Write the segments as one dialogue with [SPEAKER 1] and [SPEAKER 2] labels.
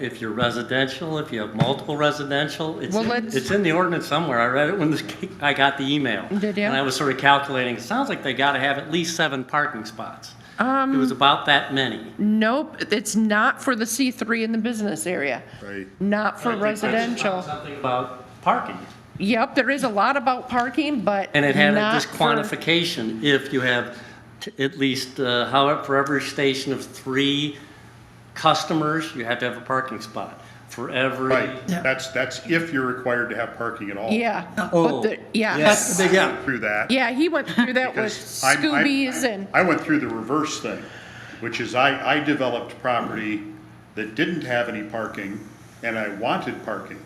[SPEAKER 1] if you're residential, if you have multiple residential, it's,
[SPEAKER 2] Well,
[SPEAKER 1] in-
[SPEAKER 2] let's-
[SPEAKER 1] it's in the ordinance somewhere. I read it when this- I got the email.
[SPEAKER 2] Did you?
[SPEAKER 1] And I was sort of calculating, it sounds like they got to have at least seven parking spots. It
[SPEAKER 2] Um,
[SPEAKER 1] was about that many.
[SPEAKER 2] nope, it's not for the C3 in the business area.
[SPEAKER 3] Right.
[SPEAKER 2] Not for
[SPEAKER 1] I think I just found
[SPEAKER 2] residential.
[SPEAKER 1] Something about parking.
[SPEAKER 2] Yep, there is a lot about parking, but
[SPEAKER 1] And it had a-
[SPEAKER 2] not
[SPEAKER 1] this
[SPEAKER 2] for-
[SPEAKER 1] quantification, if you have t- at least, uh, however, for every station of three customers, you have to have a parking spot. For every.
[SPEAKER 3] Right, that's, that's if you're required to have parking at all.
[SPEAKER 2] Yeah.
[SPEAKER 1] Oh,
[SPEAKER 2] but the- Yeah,
[SPEAKER 1] yes.
[SPEAKER 4] But, yeah,
[SPEAKER 3] Through that.
[SPEAKER 2] yeah, he went through that with
[SPEAKER 3] Because I'm- I'm-
[SPEAKER 2] Scoobies and,
[SPEAKER 3] I went through the reverse thing, which is I, I developed property that didn't have any parking, and I wanted parking.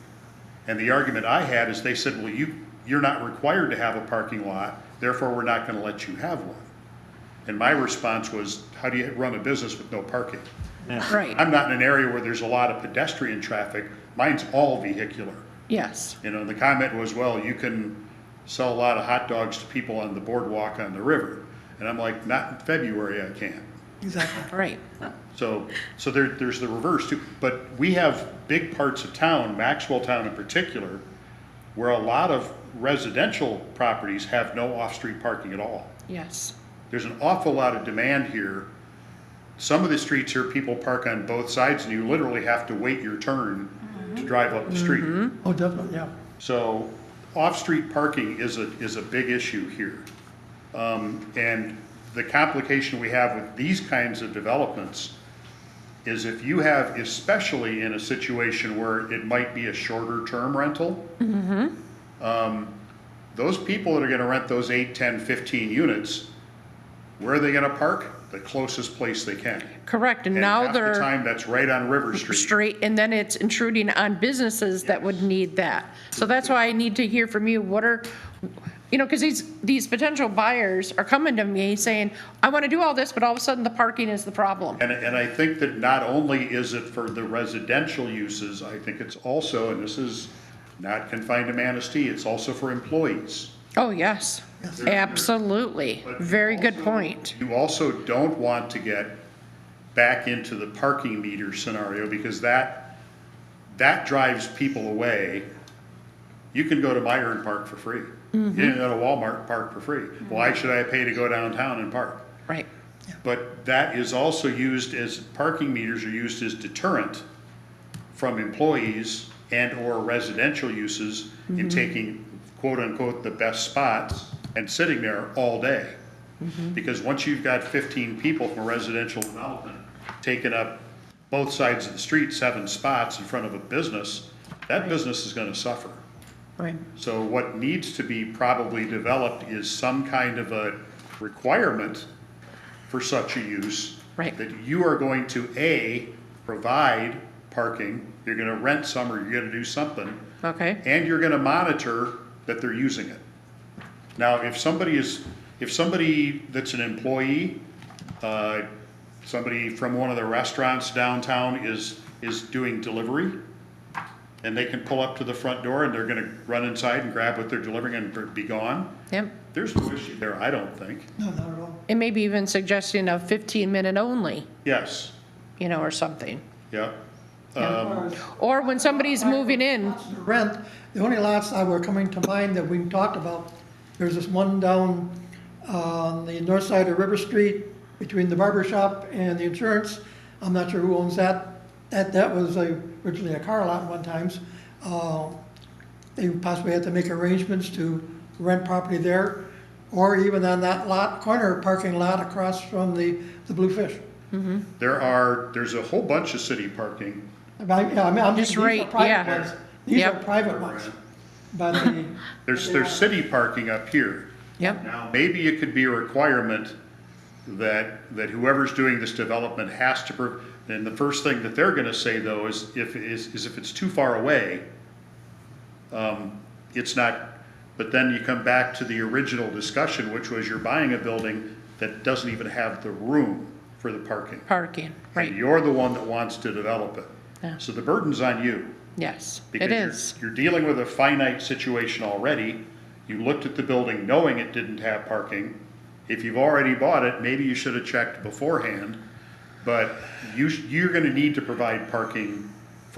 [SPEAKER 3] And the argument I had is they said, well, you, you're not required to have a parking lot, therefore we're not gonna let you have one. And my response was, how do you run a business with no parking?
[SPEAKER 2] right,
[SPEAKER 3] I'm not in an area where there's a lot of pedestrian traffic, mine's all vehicular.
[SPEAKER 2] yes.
[SPEAKER 3] You know, the comment was, well, you can sell a lot of hot dogs to people on the boardwalk on the river. And I'm like, not in February, I can't.
[SPEAKER 4] exactly.
[SPEAKER 2] Right.
[SPEAKER 3] So, so there, there's the reverse too. But we have big parts of town, Maxwell Town in particular, where a lot of residential properties have no off-street parking at all.
[SPEAKER 2] Yes.
[SPEAKER 3] There's an awful lot of demand here. Some of the streets here, people park on both sides and you literally have to wait your turn to drive up the street.
[SPEAKER 4] Oh, definitely, yeah.
[SPEAKER 3] So off-street parking is a, is a big issue here. Um, And the complication we have with these kinds of developments is if you have, especially in a situation where it might be a shorter-term rental,
[SPEAKER 2] Mm-hmm.
[SPEAKER 3] um, those people that are gonna rent those eight, 10, 15 units, where are they gonna park? The closest place they can.
[SPEAKER 2] Correct, and
[SPEAKER 3] And
[SPEAKER 2] now
[SPEAKER 3] half the
[SPEAKER 2] they're
[SPEAKER 3] time, that's right on River Street.
[SPEAKER 2] straight, and then it's intruding on businesses that would need that. So that's why I need to hear from you, what are, you know, because these, these potential buyers are coming to me saying, I want to do all this, but all of a sudden the parking is the problem.
[SPEAKER 3] And, and I think that not only is it for the residential uses, I think it's also, and this is not confined to Manistee, it's also for employees.
[SPEAKER 2] Oh, yes, absolutely, very good point.
[SPEAKER 3] You also don't want to get back into the parking meter scenario because that, that drives people away. You can go to Meyer and park for free. You
[SPEAKER 2] Mm-hmm.
[SPEAKER 3] can go to Walmart and park for free. Why should I pay to go downtown and park?
[SPEAKER 2] Right,
[SPEAKER 3] But that is also used as, parking meters are used as deterrent from employees and/or residential uses in taking quote-unquote the best spots and sitting there all day.
[SPEAKER 2] Mm-hmm.
[SPEAKER 3] Because once you've got fifteen people from a residential development taking up both sides of the street, seven spots in front of a business, that business is gonna suffer.
[SPEAKER 2] right,
[SPEAKER 3] So what needs to be probably developed is some kind of a requirement for such a use.
[SPEAKER 2] Right.
[SPEAKER 3] That you are going to, A, provide parking, you're gonna rent some or you're gonna do something,
[SPEAKER 2] okay,
[SPEAKER 3] and you're gonna monitor that they're using it. Now, if somebody is, if somebody that's an employee, uh, somebody from one of the restaurants downtown is, is doing delivery, and they can pull up to the front door and they're gonna run inside and grab what they're delivering and be gone,
[SPEAKER 2] yep.
[SPEAKER 3] there's no issue there, I don't think.
[SPEAKER 4] No, not at all.
[SPEAKER 2] And maybe even suggesting a 15-minute only,
[SPEAKER 3] Yes,
[SPEAKER 2] you know, or something.
[SPEAKER 3] yeah. Um,
[SPEAKER 2] Or when somebody's moving in,
[SPEAKER 4] The Rent, the only lots that were coming to mind that we talked about, there's this one down on the north side of River Street between the barber shop and the insurance. I'm not sure who owns that. That, that was a- originally a car lot one times. Uh, They possibly had to make arrangements to rent property there, or even on that lot, corner parking lot across from the, the Bluefish.
[SPEAKER 3] There are, there's a whole bunch of city parking,
[SPEAKER 4] I mean, yeah, I mean, I'm
[SPEAKER 2] Just
[SPEAKER 4] these are
[SPEAKER 2] right,
[SPEAKER 4] private
[SPEAKER 2] yeah.
[SPEAKER 4] ones. These are
[SPEAKER 2] Yep.
[SPEAKER 4] private ones, but the,
[SPEAKER 3] there's, there's city parking up here.
[SPEAKER 2] yep,
[SPEAKER 3] Now, maybe it could be a requirement that, that whoever's doing this development has to, pro- and the first thing that they're gonna say though is if, is, is if it's too far away, um, it's not, but then you come back to the original discussion, which was you're buying a building that doesn't even have the room for the parking.
[SPEAKER 2] parking,
[SPEAKER 3] And
[SPEAKER 2] right,
[SPEAKER 3] you're the one that wants to develop
[SPEAKER 2] Yeah.
[SPEAKER 3] it. So the burden's on you.
[SPEAKER 2] yes,
[SPEAKER 3] because
[SPEAKER 2] it
[SPEAKER 3] you're-
[SPEAKER 2] is,
[SPEAKER 3] You're dealing with a finite situation already. You looked at the building knowing it didn't have parking. If you've already bought it, maybe you should have checked beforehand, but you, sh- you're gonna need to provide parking